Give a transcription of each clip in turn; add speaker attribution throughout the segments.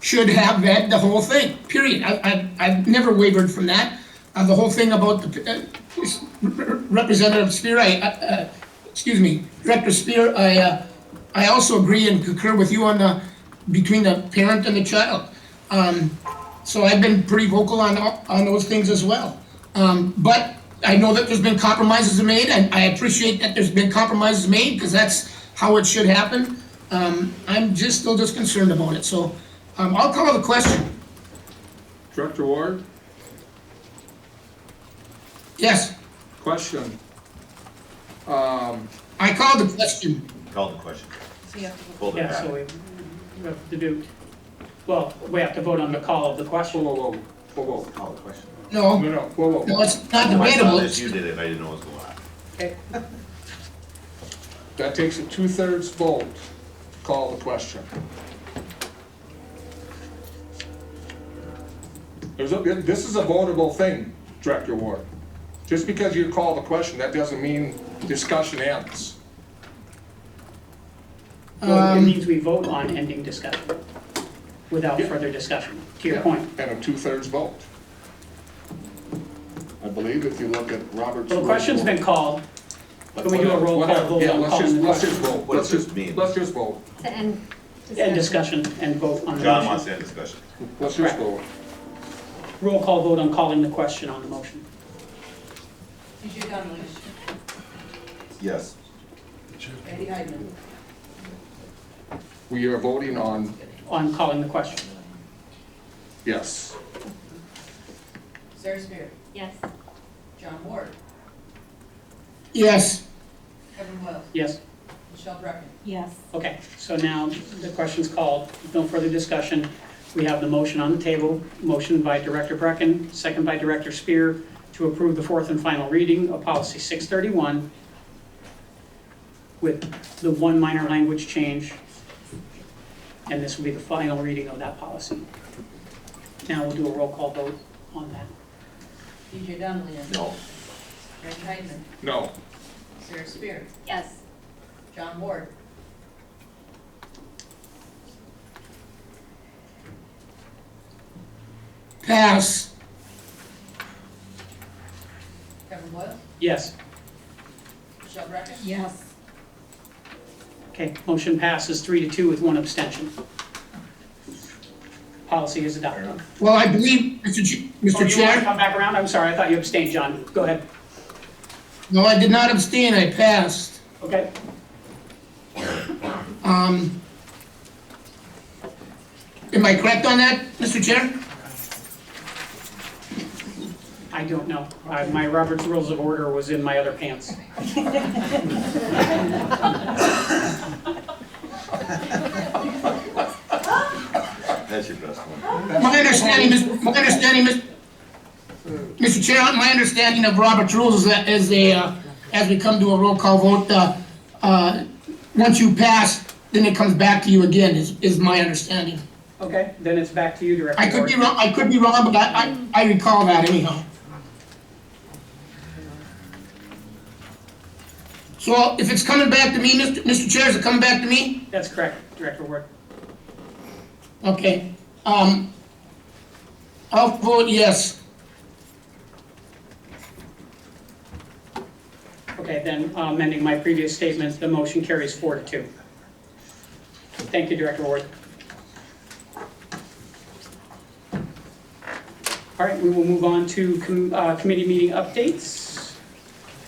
Speaker 1: should have read the whole thing, period. I, I, I've never wavered from that. Uh, the whole thing about the, uh, Representative Spear, I, uh, excuse me, Director Spear, I, uh, I also agree and concur with you on the, between the parent and the child. Um, So I've been pretty vocal on, on those things as well. Um, but I know that there's been compromises made, and I appreciate that there's been compromises made, because that's how it should happen. Um, I'm just, still just concerned about it, so, um, I'll call the question.
Speaker 2: Director Ward,
Speaker 1: Yes,
Speaker 2: question. Um,
Speaker 1: I called the question.
Speaker 3: Call the question.
Speaker 4: So you have to vote.
Speaker 3: Hold it
Speaker 5: Yeah, so
Speaker 3: back.
Speaker 5: we we have to do, well, we have to vote on the call of the
Speaker 2: whoa,
Speaker 5: question.
Speaker 2: whoa, whoa, whoa, whoa.
Speaker 3: Call the question.
Speaker 1: No,
Speaker 2: No,
Speaker 1: no,
Speaker 2: no, whoa, whoa.
Speaker 1: it's not
Speaker 5: Oh,
Speaker 3: When I saw
Speaker 1: debatable.
Speaker 3: this, you did it, I didn't know what was going on.
Speaker 5: Okay,
Speaker 2: That takes a two-thirds vote. Call the question. There's a, this is a votable thing, Director Ward. Just because you call the question, that doesn't mean discussion ends.
Speaker 5: well, it means we vote on ending discussion without further discussion, to your point.
Speaker 2: And a two-thirds vote. I believe if you look at Robert's.
Speaker 5: So the question's been called, can we do a roll call
Speaker 2: Whatever,
Speaker 5: vote
Speaker 2: yeah,
Speaker 5: on
Speaker 2: let's just,
Speaker 5: calling the
Speaker 2: let's just
Speaker 5: question?
Speaker 2: vote,
Speaker 3: What
Speaker 2: let's
Speaker 3: does this
Speaker 2: just,
Speaker 3: mean?
Speaker 2: let's just vote,
Speaker 4: To end
Speaker 5: End discussion and vote on the
Speaker 3: John wants
Speaker 5: motion.
Speaker 3: to end discussion.
Speaker 2: let's just vote.
Speaker 5: Roll call vote on calling the question on the motion.
Speaker 4: Richard Donlin,
Speaker 3: Yes.
Speaker 4: Randy Heidman,
Speaker 2: We are voting on,
Speaker 5: On calling the question.
Speaker 2: yes.
Speaker 4: Sarah Spear,
Speaker 6: Yes,
Speaker 4: John Ward,
Speaker 1: Yes,
Speaker 4: Kevin Wells,
Speaker 5: Yes,
Speaker 4: Michelle Brecken.
Speaker 6: yes,
Speaker 5: okay, so now the question's called, no further discussion. We have the motion on the table, motion by Director Brecken, second by Director Spear, to approve the fourth and final reading of policy 631 with the one minor language change, and this will be the final reading of that policy. Now we'll do a roll call vote on that.
Speaker 4: BJ Donlin,
Speaker 3: No.
Speaker 4: Randy Heidman,
Speaker 2: No.
Speaker 4: Sarah Spear,
Speaker 6: yes,
Speaker 4: John Ward,
Speaker 1: pass.
Speaker 4: Kevin Wells,
Speaker 5: Yes?
Speaker 4: Michelle Brecken.
Speaker 6: yes.
Speaker 5: Okay, motion passes three to two with one abstention. Policy is adopted.
Speaker 1: Well, I believe, Mr. Ch- Mr.
Speaker 5: Oh, you want to
Speaker 1: Chair,
Speaker 5: come back around? I'm sorry, I thought you abstained, John. Go ahead.
Speaker 1: no, I did not abstain, I passed.
Speaker 5: Okay,
Speaker 1: Am I correct on that, Mr. Chair?
Speaker 5: I don't know. I- My Robert's Rules of Order was in my other pants.
Speaker 3: That's your best one.
Speaker 1: My understanding, Mr. my understanding, Mr. Mr. Chair, my understanding of Robert's rules is that as they, uh, as we come to a roll call vote, uh, uh, once you pass, then it comes back to you again, is, is my understanding.
Speaker 5: Okay, then it's back to you, Director
Speaker 1: I could be
Speaker 5: Ward.
Speaker 1: wrong, I could be wrong, but I, I I recall that anyhow. So if it's coming back to me, Mr. Mr. Chair, is it coming back to me?
Speaker 5: That's correct, Director Ward.
Speaker 1: Okay, um, I'll vote yes.
Speaker 5: Okay, then uh, amending my previous statement, the motion carries four to two. Thank you, Director Ward. All right, we will move on to com- uh, committee meeting updates.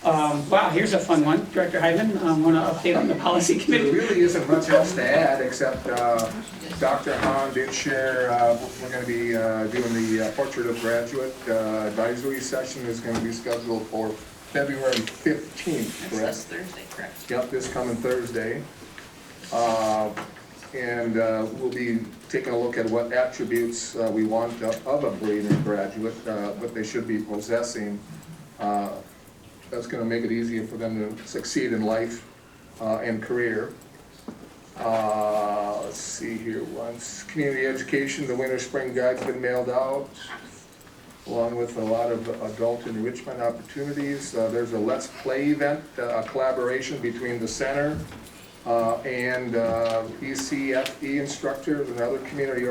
Speaker 5: Um, Wow, here's a fun one. Director Hyman, I want to update on the policy
Speaker 2: There
Speaker 5: committee.
Speaker 2: really isn't much else to add, except uh, Dr. Hahn did share, uh, we're going to be uh, doing the uh, portrait of graduate uh, advisory session is going to be scheduled for February 15th, correct?
Speaker 4: Thursday, correct.
Speaker 2: Yep, this coming Thursday. Uh, And uh, we'll be taking a look at what attributes uh, we want of of a Braden graduate, uh, what they should be possessing. Uh, That's gonna make it easier for them to succeed in life uh, and career. Uh, Let's see here, once, community education, the winter spring guide's been mailed out, along with a lot of adult enrichment opportunities. Uh, There's a Let's Play event, uh, a collaboration between the E center uh, and uh, ECFE instructors and other community